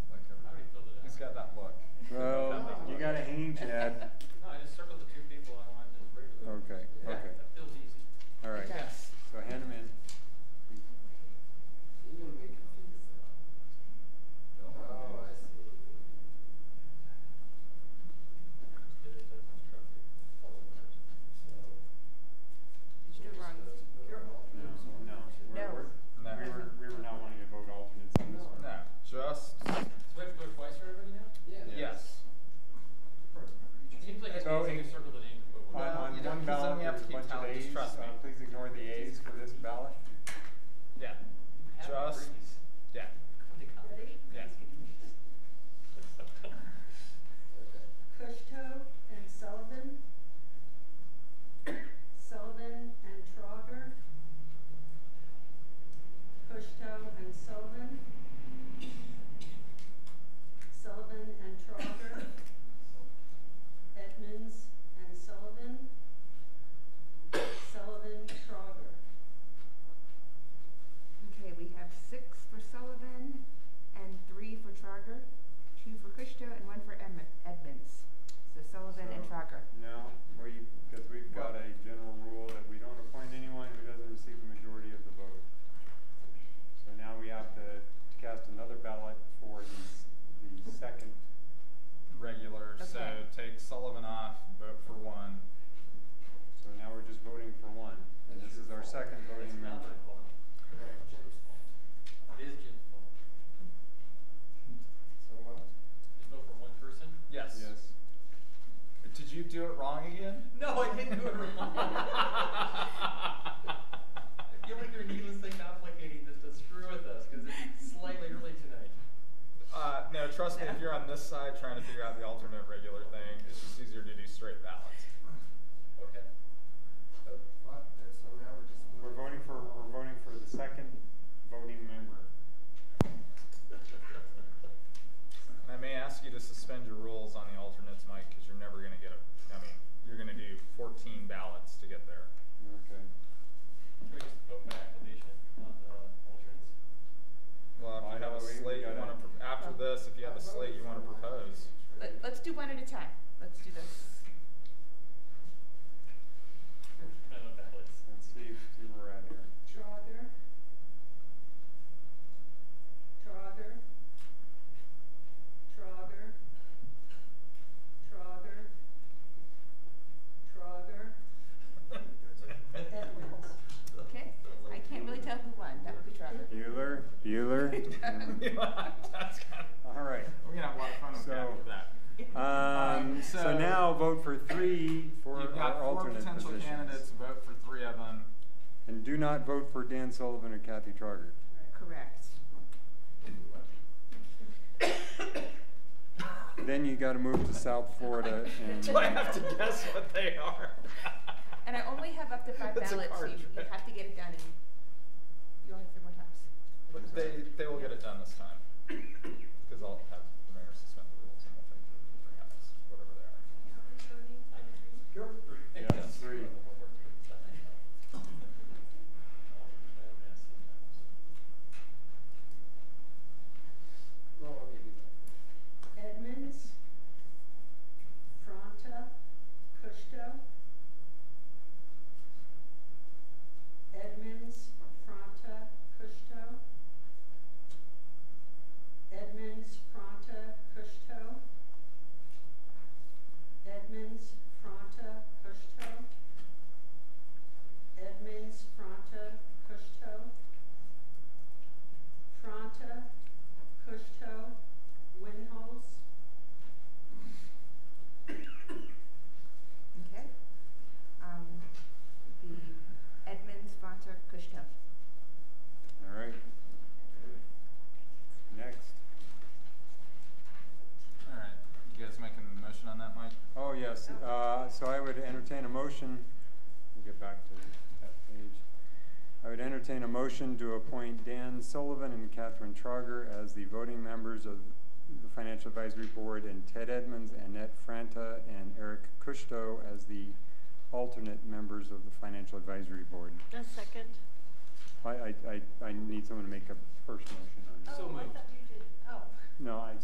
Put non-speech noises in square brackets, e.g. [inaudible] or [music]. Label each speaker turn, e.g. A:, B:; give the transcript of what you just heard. A: anything to add?
B: No, I just circled the two people I wanted to bring.
A: Okay,
B: That-
A: okay.
B: That feels easy.
A: All right,
C: Yes.
A: so hand them in.
D: Oh, I see.
B: Just did it as instructed.
C: Did you do it wrong?
A: No, no.
C: No.
A: We're-
E: No.
A: we're- We were, we were not wanting to vote alternates on this one.
E: No, just
B: So we have to vote twice for everybody now?
E: yes.
B: It seems like it's
A: So
B: easy to
A: in-
B: circle the names, but
A: On,
B: we're
E: Well,
A: on
E: you don't-
A: one
E: 'cause then
A: ballot,
E: we have
A: there's
E: to
A: a
E: keep
A: bunch of
E: tally,
A: ayes.
E: trust
A: Uh,
E: me.
A: Please ignore the ayes for this ballot.
E: Yeah.
B: having
E: Just
B: threes.
E: yeah.
B: Come to college.
E: Yeah.
F: Kushto and Sullivan. Sullivan and Trogger. Kushto and Sullivan. Sullivan and Trogger. Edmonds and Sullivan. Sullivan, Trogger.
C: Okay, we have six for Sullivan and three for Trager, two for Kushto and one for Edm- Edmonds. So Sullivan and
A: So,
C: Trager.
A: No, we, because we've got a general rule that we don't appoint anyone who doesn't receive a majority of the vote. So now we have to to cast another ballot for the, s- the second.
E: Regular. So
C: Okay.
E: take Sullivan off, vote for one.
A: So now we're just voting for one, and this is our second voting
B: It's not
A: member.
B: my fault. It is Jim's fault. Just vote for one person?
E: Yes.
A: Yes.
E: Did you do it wrong again?
B: No, I didn't do it wrong.
E: [laughs]
B: I feel like you're needlessly complicating this to screw with us because it's slightly early tonight.
E: Uh, no, trust me. If you're on this side trying to figure out the alternate regular thing, it's just easier to do straight ballots.
B: [laughs] Okay. So,
A: We're voting for, we're voting for the second voting member.
E: And I may ask you to suspend your rules on the alternates, Mike, because you're never going to get a. I mean, you're going to do 14 ballots to get there.
A: Okay.
B: Can we just vote by acclamation on the alternates?
E: Well, if you have
A: Well,
E: a
A: we- we
E: slate you
A: gotta-
E: want to pro- after this, if you have a slate you want to propose.
C: Let, let's do one at a time. Let's do this.
B: I don't know what that was.
A: Let's see, see where we're at here.
F: Trogger. Trogger. Trogger. Trogger. Trogger.
C: Okay? I
E: [laughs]
C: can't really tell who won. That would be Trager.
A: Bueller, Bueller.
E: [laughs]
A: Um,
E: That's kind of,
A: All right.
E: We're gonna have a lot of fun with
A: So,
E: after that.
A: Um, so
E: So-
A: now vote for three for
E: You've got
A: our
E: four
A: alternate
E: potential
A: positions.
E: candidates. Vote for three of them.
A: And do not vote for Dan Sullivan or Kathy Trogger.
C: Correct.
A: Then you gotta move to South Florida and.
E: [laughs] Do I have to guess what they are?
C: [laughs] And I only have up to five
E: That's a
C: ballots. so
E: card
C: You, you
E: trick.
C: have to get it done and you only have three more times.
E: But they, they will get it done this
C: [coughs]
E: time. Because I'll have the mayor suspend the rules and we'll take the three guys, whatever they are.
A: Yeah, three. [laughs]
F: Edmonds, Fronta, Kushto. Edmonds, Fronta, Kushto. Edmonds, Fronta, Kushto. Edmonds, Fronta, Kushto. Edmonds, Fronta, Kushto. Fronta, Kushto, Winholz.
C: Okay? Um, the Edmonds, Fonter, Kushto.
A: All right. Next.
E: Alright, you guys making a motion on that, Mike?
A: Oh, yes, uh, so I would entertain a motion, we'll get back to that page. I would entertain a motion to appoint Dan Sullivan and Catherine Trogger as the voting members of the Financial Advisory Board and Ted Edmonds, Annette Franta, and Eric Kushto as the alternate members of the Financial Advisory Board.
G: A second.
A: I, I, I, I need someone to make a first motion on this.
B: So
G: Oh, I
B: moved.
G: thought you did, oh.
A: No, I,